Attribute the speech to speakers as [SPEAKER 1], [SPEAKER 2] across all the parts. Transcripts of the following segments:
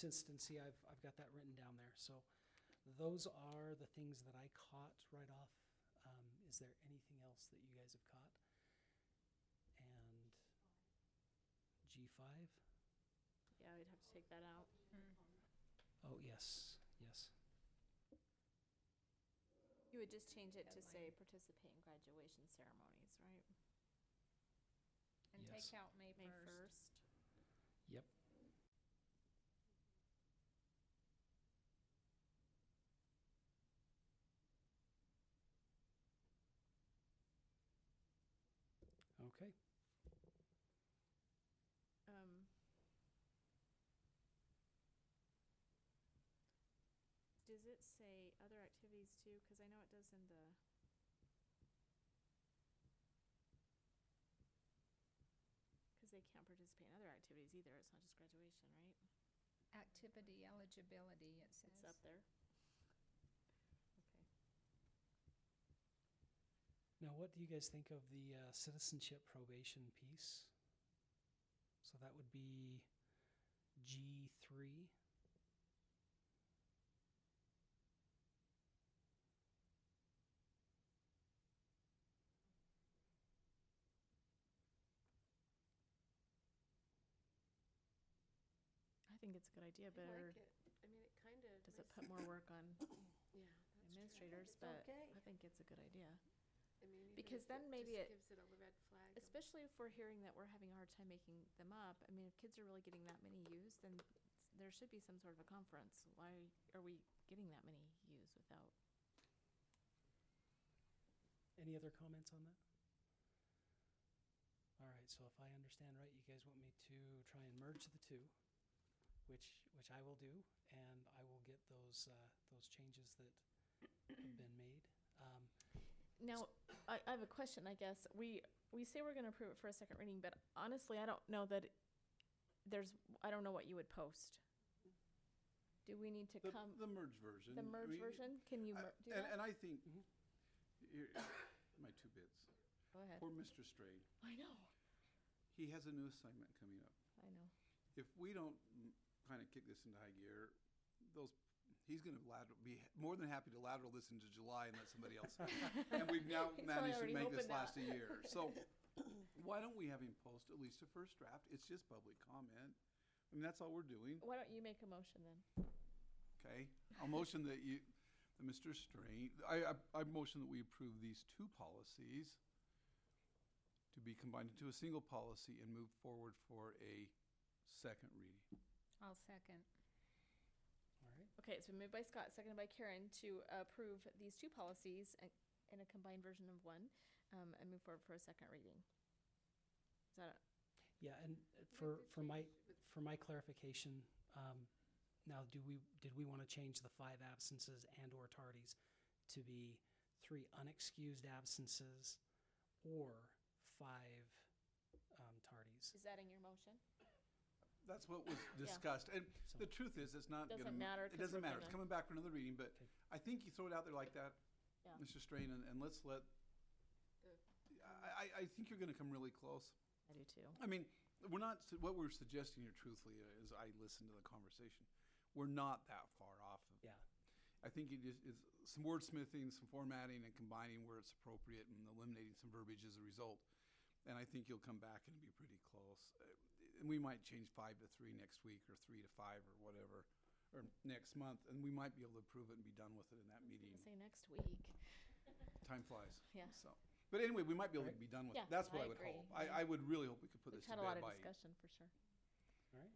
[SPEAKER 1] consistency, I've, I've got that written down there. So those are the things that I caught right off. Um, is there anything else that you guys have caught? And G5?
[SPEAKER 2] Yeah, we'd have to take that out.
[SPEAKER 1] Oh, yes, yes.
[SPEAKER 2] You would just change it to say participate in graduation ceremonies, right?
[SPEAKER 3] And
[SPEAKER 1] Yes.
[SPEAKER 3] take out May
[SPEAKER 2] May
[SPEAKER 3] first.
[SPEAKER 2] first.
[SPEAKER 1] Yep. Okay,
[SPEAKER 2] Um, Does it say other activities too? Cause I know it does in the. Cause they can't participate in other activities either. It's not just graduation, right?
[SPEAKER 3] Activity eligibility, it
[SPEAKER 2] It's
[SPEAKER 3] says.
[SPEAKER 2] up there. Okay.
[SPEAKER 1] now what do you guys think of the uh, citizenship probation piece? So that would be G three.
[SPEAKER 2] I think it's a good idea, but
[SPEAKER 4] I
[SPEAKER 2] or
[SPEAKER 4] like it. I mean, it kind of.
[SPEAKER 2] does it put more work on
[SPEAKER 4] Yeah. that's true.
[SPEAKER 2] administrators?
[SPEAKER 4] It's
[SPEAKER 2] But
[SPEAKER 4] okay.
[SPEAKER 2] I think it's a good idea.
[SPEAKER 4] I mean, even
[SPEAKER 2] because
[SPEAKER 4] if
[SPEAKER 2] then maybe
[SPEAKER 4] just
[SPEAKER 2] it-
[SPEAKER 4] Gives it a red flag. of-
[SPEAKER 2] Especially if we're hearing that we're having a hard time making them up. I mean, if kids are really getting that many views, then s- there should be some sort of a conference. Why are we getting that many views without?
[SPEAKER 1] Any other comments on that? All right, so if I understand right, you guys want me to try and merge the two, which, which I will do, and I will get those, uh, those changes that have been made. Um,
[SPEAKER 2] Now, I, I have a question, I guess. We, we say we're gonna approve it for a second reading, but honestly, I don't know that there's, I don't know what you would post. Do we need to
[SPEAKER 5] The,
[SPEAKER 2] come,
[SPEAKER 5] the merge version.
[SPEAKER 2] the
[SPEAKER 5] I
[SPEAKER 2] merge
[SPEAKER 5] mean,
[SPEAKER 2] version? Can you
[SPEAKER 5] I-
[SPEAKER 2] mer- do
[SPEAKER 5] and,
[SPEAKER 2] that?
[SPEAKER 5] and I think
[SPEAKER 1] Mhm.
[SPEAKER 5] here- my two bits.
[SPEAKER 2] Go ahead.
[SPEAKER 5] Poor Mr. Strayed.
[SPEAKER 2] I know,
[SPEAKER 5] He has a new assignment coming up.
[SPEAKER 2] I know.
[SPEAKER 5] If we don't kind of kick this into high gear, those he's going to lateral, be more than happy to lateral this into July and let somebody else. and we've now
[SPEAKER 2] He's probably
[SPEAKER 5] managed to
[SPEAKER 2] already
[SPEAKER 5] make this
[SPEAKER 2] hoping
[SPEAKER 5] last a
[SPEAKER 2] that.
[SPEAKER 5] year. So why don't we have him post at least a first draft? It's just public comment. I mean, that's all we're doing.
[SPEAKER 2] Why don't you make a motion then?
[SPEAKER 5] Okay, I'll motion that you, that Mr. Strain, I, I, I motion that we approve these two policies to be combined into a single policy and move forward for a second reading.
[SPEAKER 3] I'll second.
[SPEAKER 1] all right,
[SPEAKER 2] Okay, it's been moved by Scott, seconded by Karen to approve these two policies a- in a combined version of one um, and move forward for a second reading. Is that,
[SPEAKER 1] yeah, and uh,
[SPEAKER 4] Make
[SPEAKER 1] for,
[SPEAKER 4] the
[SPEAKER 1] for my,
[SPEAKER 4] change with-
[SPEAKER 1] for my clarification, um, now, do we, did we want to change the five absences and/or tardies to be three unexcused absences or five, um, tardies?
[SPEAKER 2] is that in your motion?
[SPEAKER 5] That's what was discussed, and
[SPEAKER 1] So-
[SPEAKER 5] the truth is, it's not gonna.
[SPEAKER 2] Doesn't matter
[SPEAKER 5] It
[SPEAKER 2] 'cause
[SPEAKER 5] doesn't
[SPEAKER 2] we're
[SPEAKER 5] matter, it's
[SPEAKER 2] gonna-
[SPEAKER 5] coming back for another reading, but
[SPEAKER 1] Okay.
[SPEAKER 5] I think you throw it out there like that,
[SPEAKER 2] Yeah.
[SPEAKER 5] Mr. Strain, and, and let's let,
[SPEAKER 4] The-
[SPEAKER 5] I, I, I think you're gonna come really close.
[SPEAKER 2] I do too.
[SPEAKER 5] I mean, we're not, su- what we're suggesting here truthfully uh, is I listened to the conversation. We're not that far off. of-
[SPEAKER 1] Yeah,
[SPEAKER 5] I think it is, is some wordsmithing, some formatting and combining where it's appropriate and eliminating some verbiage as a result. And I think you'll come back and be pretty close. Uh, And we might change five to three next week or three to five or whatever, or next month. And we might be able to approve it and be done with it in that meeting.
[SPEAKER 2] Say next week.
[SPEAKER 5] Time flies.
[SPEAKER 2] Yeah.
[SPEAKER 5] So, but anyway, we might be able to
[SPEAKER 1] Right.
[SPEAKER 5] be done with
[SPEAKER 2] Yeah,
[SPEAKER 5] it. That's what
[SPEAKER 2] I
[SPEAKER 5] I would
[SPEAKER 2] agree.
[SPEAKER 5] hope. I, I would really hope we could put
[SPEAKER 2] We've
[SPEAKER 5] this to
[SPEAKER 2] had a lot
[SPEAKER 5] bed
[SPEAKER 2] of
[SPEAKER 5] by
[SPEAKER 2] discussion for sure.
[SPEAKER 1] all right.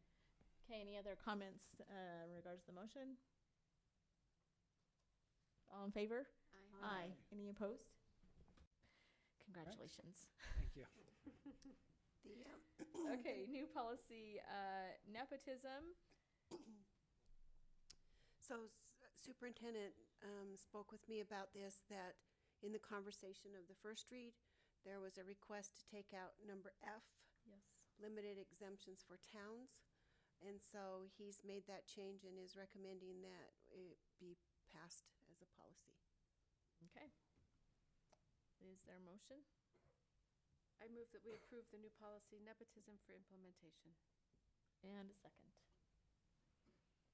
[SPEAKER 2] Okay, any other comments uh, in regards to the motion? All in favor?
[SPEAKER 4] I-
[SPEAKER 2] Aye. Any opposed? Congratulations.
[SPEAKER 1] Thank you.
[SPEAKER 2] Okay, new policy, uh, nepotism.
[SPEAKER 6] So s- Superintendent um, spoke with me about this, that in the conversation of the first read, there was a request to take out number F,
[SPEAKER 2] Yes.
[SPEAKER 6] limited exemptions for towns. And so he's made that change and is recommending that it be passed as a policy.
[SPEAKER 2] Okay. Is there a motion?
[SPEAKER 4] I move that we approve the new policy nepotism for implementation.
[SPEAKER 2] And a second.